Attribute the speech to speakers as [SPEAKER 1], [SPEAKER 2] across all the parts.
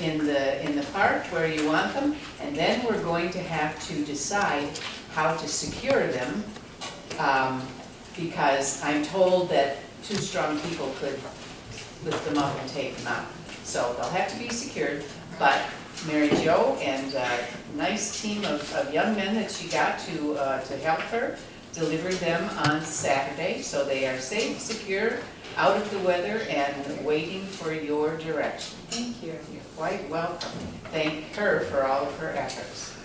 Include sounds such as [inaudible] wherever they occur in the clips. [SPEAKER 1] in the, in the park where you want them, and then we're going to have to decide how to secure them, um, because I'm told that two strong people could lift them up and take them out. So they'll have to be secured, but Mary Jo and a nice team of, of young men that she got to, uh, to help her deliver them on Saturday, so they are safe, secure, out of the weather, and waiting for your direction.
[SPEAKER 2] Thank you.
[SPEAKER 1] You're quite welcome. Thank her for all of her efforts.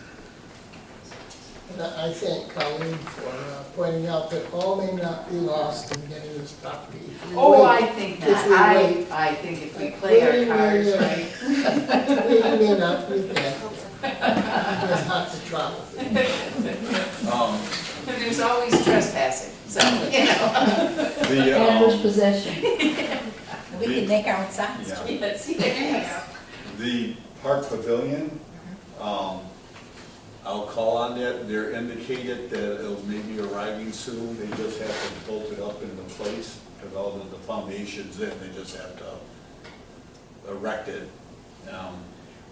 [SPEAKER 3] And I I thank Colleen for uh, pointing out that all may not be lost in getting this property. If we
[SPEAKER 1] Oh, I
[SPEAKER 3] wait,
[SPEAKER 1] think
[SPEAKER 3] If
[SPEAKER 1] not.
[SPEAKER 3] we
[SPEAKER 1] I,
[SPEAKER 3] wait.
[SPEAKER 1] I think if we play our cards
[SPEAKER 3] Wait, wait,
[SPEAKER 1] right.
[SPEAKER 3] We may not be there. There's lots of trouble.
[SPEAKER 4] Um,
[SPEAKER 1] There's always trespassing, so, you
[SPEAKER 3] [laughs]
[SPEAKER 1] know.
[SPEAKER 4] The,
[SPEAKER 5] Adverse
[SPEAKER 4] um,
[SPEAKER 5] possession.
[SPEAKER 2] We can make our own signs.
[SPEAKER 4] Yeah.
[SPEAKER 1] Yes, yes.
[SPEAKER 4] the park pavilion,
[SPEAKER 2] Mm-hmm.
[SPEAKER 4] um, I'll call on that, they're indicated that it'll maybe arriving soon, they just have to bolt it up into place, because all of the foundation's in, they just have to erect it. Um,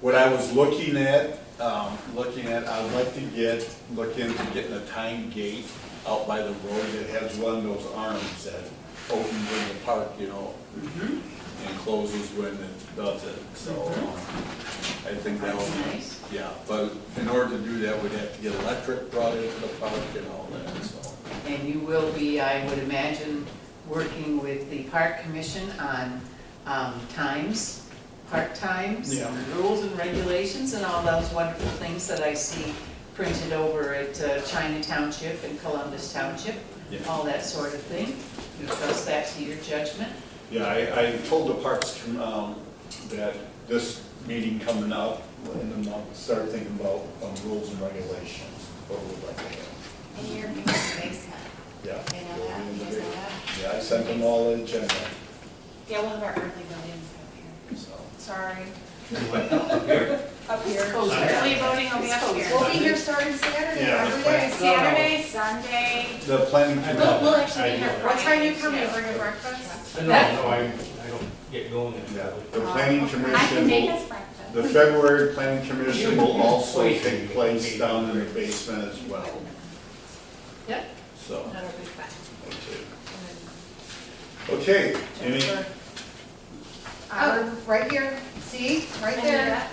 [SPEAKER 4] What I was looking at, um, looking at, I'd like to get, look into getting a time gate out by the road that has one of those arms that opens in the park, you know,
[SPEAKER 1] Mm-hmm.
[SPEAKER 4] and closes when it does it, so um, I think that would
[SPEAKER 1] That's
[SPEAKER 4] be,
[SPEAKER 1] nice.
[SPEAKER 4] yeah, but in order to do that, we'd have to get electric brought into the park and all that, so.
[SPEAKER 1] And you will be, I would imagine, working with the park commission on um, times, park times,
[SPEAKER 4] Yeah.
[SPEAKER 1] rules and regulations, and all those wonderful things that I see printed over at uh, China Township and Columbus Township,
[SPEAKER 4] Yeah.
[SPEAKER 1] all that sort of thing. You trust that to your judgment?
[SPEAKER 4] Yeah, I, I told the parks, um, that this meeting coming up, and then I'll start thinking about, um, rules and regulations, what we'd like to have.
[SPEAKER 2] And you're in the basement,
[SPEAKER 4] Yeah.
[SPEAKER 2] they know that, you guys know that.
[SPEAKER 4] Yeah, I sent them all the agenda,
[SPEAKER 2] Yeah, we'll have our early buildings up
[SPEAKER 4] so.
[SPEAKER 2] here. Sorry,
[SPEAKER 6] Here,
[SPEAKER 2] up here.
[SPEAKER 1] Oh, yeah.
[SPEAKER 2] Early voting will be up here.
[SPEAKER 1] We'll be here
[SPEAKER 2] starting Saturday,
[SPEAKER 4] Yeah, every day.
[SPEAKER 6] no, no. Saturday,
[SPEAKER 2] Sunday.
[SPEAKER 4] The planning
[SPEAKER 6] Well,
[SPEAKER 4] committee,
[SPEAKER 6] well, actually, we have-
[SPEAKER 2] What time you coming, bring a breakfast?
[SPEAKER 6] I don't know, I, I don't get going
[SPEAKER 4] yeah,
[SPEAKER 6] in.
[SPEAKER 4] the planning commission will.
[SPEAKER 7] I can make us breakfast.
[SPEAKER 4] The February planning commission will also take place down in the basement as well,
[SPEAKER 1] Yep.
[SPEAKER 4] so.
[SPEAKER 2] That'll be fun.
[SPEAKER 4] Okay, any,
[SPEAKER 2] Um, right here, see, right there.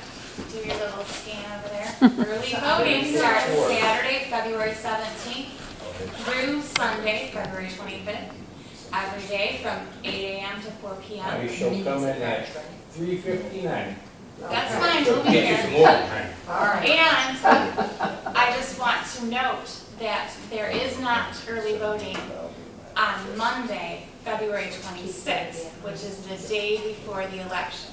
[SPEAKER 7] Do your little scan over
[SPEAKER 2] [laughs]
[SPEAKER 7] there. Early voting starts Saturday, February seventeenth through Sunday, February twenty-fifth. Every day from eight AM to four
[SPEAKER 6] I
[SPEAKER 7] PM.
[SPEAKER 6] shall come in at three fifty-nine.
[SPEAKER 7] That's fine, we'll be
[SPEAKER 6] Get you some
[SPEAKER 7] here.
[SPEAKER 6] more time.
[SPEAKER 2] All right.
[SPEAKER 7] And I just want to note that there is not early voting on Monday, February twenty-sixth, which is the day before the election.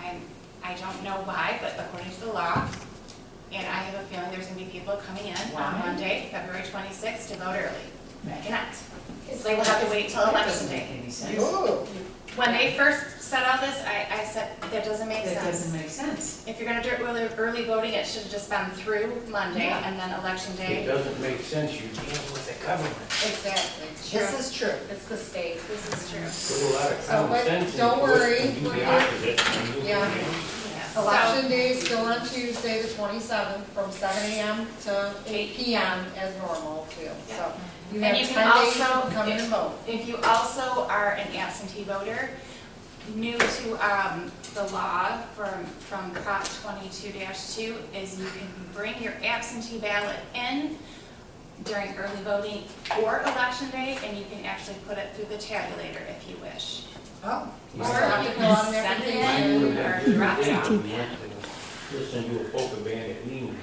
[SPEAKER 7] I'm, I don't know why, but according to the law, and I have a feeling there's gonna be people coming in
[SPEAKER 1] Why?
[SPEAKER 7] on Monday, February twenty-sixth, to vote early. I cannot.
[SPEAKER 2] It's
[SPEAKER 7] They will have to wait till
[SPEAKER 1] That
[SPEAKER 7] election
[SPEAKER 1] doesn't make
[SPEAKER 7] day.
[SPEAKER 1] any sense.
[SPEAKER 3] Oh,
[SPEAKER 7] When they first set all this, I, I said, that doesn't make
[SPEAKER 1] That
[SPEAKER 7] sense.
[SPEAKER 1] doesn't make sense.
[SPEAKER 7] If you're gonna do early, early voting, it should have just been through Monday
[SPEAKER 1] Yeah.
[SPEAKER 7] and then election
[SPEAKER 6] It
[SPEAKER 7] day.
[SPEAKER 6] doesn't make sense, you deal with the government.
[SPEAKER 2] Exactly. This is true. It's the state.
[SPEAKER 7] This is true.
[SPEAKER 6] Put a lot of
[SPEAKER 2] So,
[SPEAKER 6] common
[SPEAKER 2] but
[SPEAKER 6] sense in
[SPEAKER 2] don't
[SPEAKER 6] it, and
[SPEAKER 2] worry,
[SPEAKER 6] Do
[SPEAKER 2] we're
[SPEAKER 6] the
[SPEAKER 2] good.
[SPEAKER 6] opposite. and you'll
[SPEAKER 2] Yeah.
[SPEAKER 6] be-
[SPEAKER 7] So,
[SPEAKER 2] Election day is still on Tuesday, the twenty-seventh, from seven AM to eight PM as normal too, so. You
[SPEAKER 7] And
[SPEAKER 2] have
[SPEAKER 7] you can
[SPEAKER 2] ten days to
[SPEAKER 7] also-
[SPEAKER 2] come in and vote.
[SPEAKER 7] if you also are an absentee voter, new to, um, the law from, from Prop twenty-two two is you can bring your absentee ballot in during early voting or election day, and you can actually put it through the tabulator if you wish.
[SPEAKER 2] Oh.
[SPEAKER 7] Or
[SPEAKER 6] Mine-
[SPEAKER 7] you can send it
[SPEAKER 6] mine
[SPEAKER 7] in
[SPEAKER 6] would
[SPEAKER 7] or
[SPEAKER 6] have been
[SPEAKER 7] drop it off.
[SPEAKER 6] down. We went to Listen to a polka band at Lean's.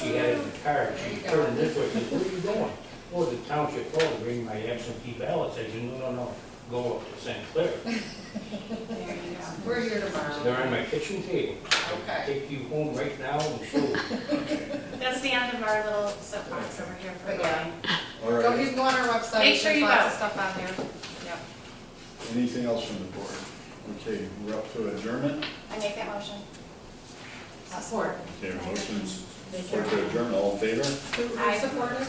[SPEAKER 6] She had it in the car,
[SPEAKER 2] There you
[SPEAKER 6] she
[SPEAKER 2] go.
[SPEAKER 6] turned this way, said, where are you going? Oh, the township hall to bring my absentee ballots. I said, no, no, no, go up to St. Clair.
[SPEAKER 7] There you go.
[SPEAKER 2] We're here
[SPEAKER 6] They're
[SPEAKER 2] tomorrow.
[SPEAKER 6] on my kitchen table. I'll
[SPEAKER 2] Okay.
[SPEAKER 6] Take you home right now and show you.
[SPEAKER 7] That's the end of our little soapbox over here for
[SPEAKER 2] But
[SPEAKER 7] the
[SPEAKER 2] yeah.
[SPEAKER 7] line.
[SPEAKER 4] all
[SPEAKER 2] Go,
[SPEAKER 4] right,
[SPEAKER 2] you can go on our website.
[SPEAKER 7] Make sure
[SPEAKER 2] there's
[SPEAKER 7] you
[SPEAKER 2] lots
[SPEAKER 7] vote.
[SPEAKER 2] of Stuff on there. Yep.
[SPEAKER 4] anything else from the board? Okay, we're up to adjournment.
[SPEAKER 7] I make that motion.
[SPEAKER 1] Support.
[SPEAKER 4] Okay, motions for to adjourn, all in favor?
[SPEAKER 2] Who- who
[SPEAKER 7] I-
[SPEAKER 2] supported?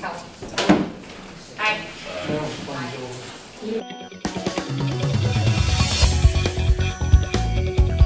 [SPEAKER 2] Helen.
[SPEAKER 7] Aye.
[SPEAKER 6] Sounds fun, though.